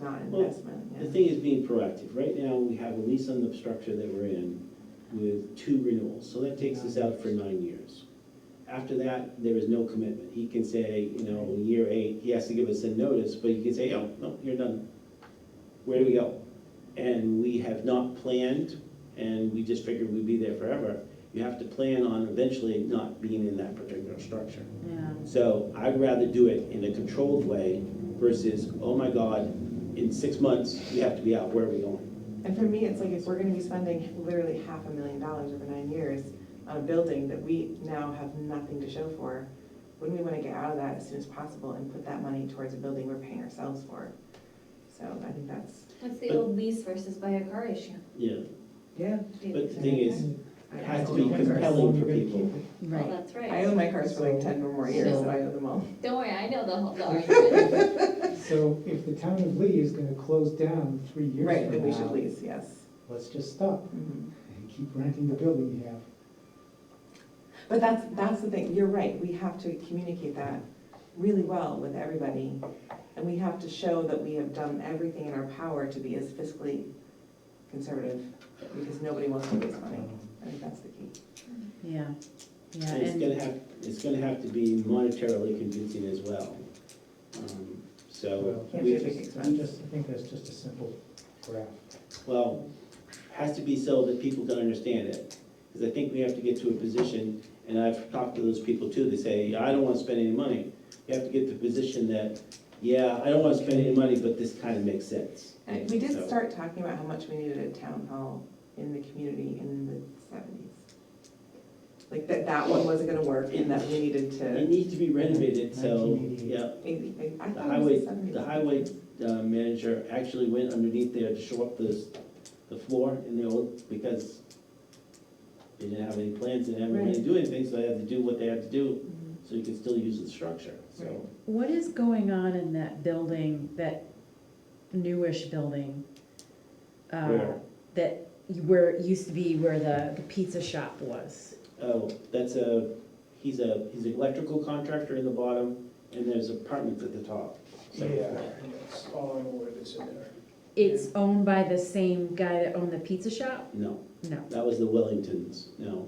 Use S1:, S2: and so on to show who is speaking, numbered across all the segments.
S1: not
S2: Well,
S1: investment,
S2: The
S1: yeah.
S2: thing is being proactive. Right now, we have a lease on the structure that we're in with two renewals, so that takes us out for nine years. After that, there is no commitment. He can say, you know, in year eight, he has to give us a notice, but he can say, oh, no, you're done. Where do we go? And we have not planned, and we just figured we'd be there forever. You have to plan on eventually not being in that particular structure.
S1: Yeah.
S2: So I'd rather do it in a controlled way versus, oh my God, in six months, we have to be out, where are we going?
S1: And for me, it's like if we're gonna be spending literally half a million dollars over nine years on a building that we now have nothing to show for, wouldn't we wanna get out of that as soon as possible and put that money towards a building we're paying ourselves for? So I think that's.
S3: What's the old lease versus buy a car issue?
S2: Yeah,
S1: Yeah.
S2: but the thing is,
S1: I
S2: it has to
S1: own
S2: be
S1: my cars.
S2: compelling for people.
S3: Well,
S4: Right.
S3: Oh, that's
S1: I own
S3: right.
S1: my cars for like ten or more years, so I owe them all.
S3: Don't worry, I know the whole, the argument.
S5: So if the town of Lee is gonna close down three years from now.
S1: Right, then we should lease, yes.
S5: Let's just stop
S1: Mhm.
S5: and keep renting the building you have.
S1: But that's, that's the thing, you're right, we have to communicate that really well with everybody. And we have to show that we have done everything in our power to be as fiscally conservative, because nobody wants to waste money. I think that's the key.
S4: Yeah, yeah,
S2: And it's
S4: and,
S2: gonna have, it's gonna have to be monetarily convincing as well. Um, So,
S5: Well,
S1: Can't
S2: we
S1: be a big
S2: just-
S5: I
S1: expense.
S5: just, I think that's just a simple graph.
S2: well, has to be so that people can understand it. Because I think we have to get to a position, and I've talked to those people too, they say, I don't wanna spend any money. You have to get to a position that, yeah, I don't wanna spend any money, but this kind of makes sense.
S1: And we did
S2: So-
S1: start talking about how much we needed a town hall in the community in the seventies. Like that, that one wasn't gonna work and that we needed
S2: It
S1: to,
S2: needs to be renovated, so,
S5: 1988.
S2: yeah,
S1: maybe, maybe- I
S2: the
S1: thought it was
S2: highway,
S1: the seventies.
S2: the highway uh, manager actually went underneath there to show up the, the floor in the old, because they didn't have any plans, they didn't have any way to do anything, so they had to do what they had to do,
S1: Mhm.
S2: so you could still use the structure, so.
S4: what is going on in that building, that newish building? uh,
S2: Where?
S4: That, you- where, it used to be where the, the pizza shop was.
S2: Oh, that's a, he's a, he's an electrical contractor in the bottom, and there's apartments at the top. So-
S6: That's all I'm aware that's in there.
S4: It's owned by the same guy that owned the pizza shop?
S2: No,
S4: No,
S2: that was the Wellingtons, no.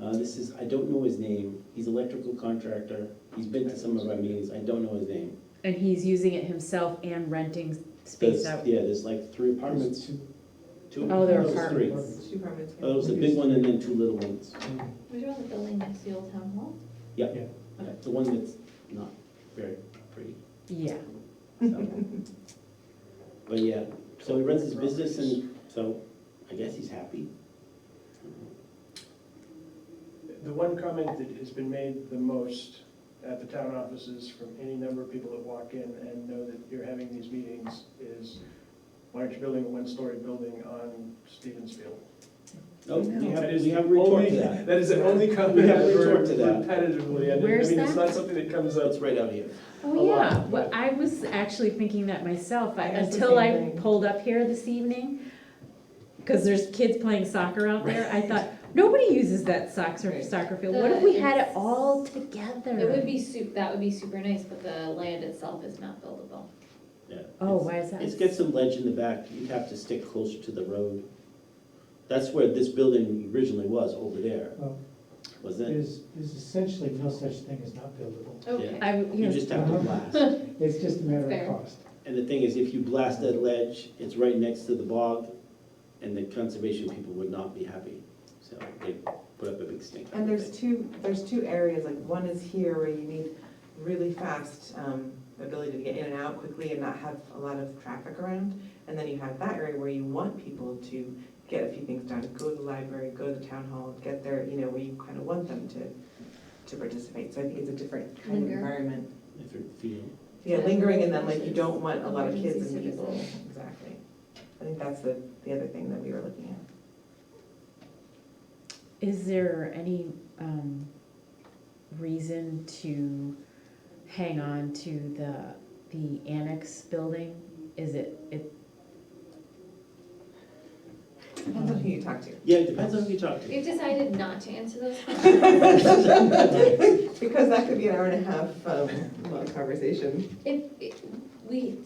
S2: Uh, this is, I don't know his name, he's electrical contractor, he's been to some of our meetings, I don't know his name.
S4: and he's using it himself and renting
S2: There's,
S4: space out.
S2: yeah, there's like three apartments,
S5: Two-
S2: two.
S4: Oh, there are
S2: no, there's three.
S4: apartments.
S1: Two permits. yeah.
S2: Oh, there was a big one and then two little ones.
S3: Was you on the building next to the old town hall?
S2: Yeah, Uh, The one that's not very pretty.
S4: Yeah,
S2: so. But yeah, so he runs his business and so I guess he's happy.
S6: The one comment that has been made the most at the town offices from any number of people that walk in and know that you're having these meetings is, why aren't you building a one-story building on Stevens Field?
S2: Oh, we
S4: No.
S2: have,
S6: That is
S2: we have a
S6: the
S2: retort
S6: only-
S2: to that.
S6: That is the only comment
S2: We have
S6: I've
S2: retort
S6: heard
S2: to that.
S6: repetitively, and I
S4: Where's
S6: mean, it's
S4: that?
S6: not something that comes up.
S2: That's right out here.
S6: A
S4: oh
S6: lot,
S4: yeah, well,
S6: but-
S4: I was actually thinking that myself, I-
S1: I asked the
S4: until
S1: same
S4: I
S1: thing.
S4: pulled up here this evening, because there's kids playing soccer out there, I thought, nobody uses that soccer,
S1: Right.
S4: soccer field, what if we had it all together?
S3: It would be su, that would be super nice, but the land itself is not buildable.
S2: Yeah.
S4: Oh,
S2: It's-
S4: why is that?
S2: It's got some ledge in the back, you'd have to stick closer to the road. That's where this building originally was, over there,
S5: Well,
S2: wasn't it?
S5: Um, There's, there's essentially no such thing as not buildable.
S3: Okay.
S4: I,
S2: You
S4: you know,
S2: just have to
S1: Uh-huh.
S2: blast.
S5: It's just a matter
S3: Fair.
S5: of cost.
S2: And the thing is, if you blast that ledge, it's right next to the bog, and the conservation people would not be happy. So they put up a big stink.
S1: And there's two, there's two areas, like one is here where you need really fast um, ability to get in and out quickly and not have a lot of traffic around. And then you have that area where you want people to get a few things done, go to the library, go to the town hall, get there, you know, where you kind of want them to, to participate. So I think it's a different kind of
S3: Linger.
S1: environment.
S2: If they're feeding.
S1: Yeah,
S3: Yeah.
S1: lingering and then like you don't want a lot of kids and
S3: Emergency
S1: people,
S3: citizens.
S1: exactly. I think that's the, the other thing that we were looking at.
S4: is there any, um, reason to hang on to the, the annex building? Is it, it,
S1: Depends on who you talk to.
S2: Yeah, it depends on who you talk to.
S3: We've decided not to answer those questions.
S1: Because that could be an hour and a half, um, long conversation.
S3: If, if- we,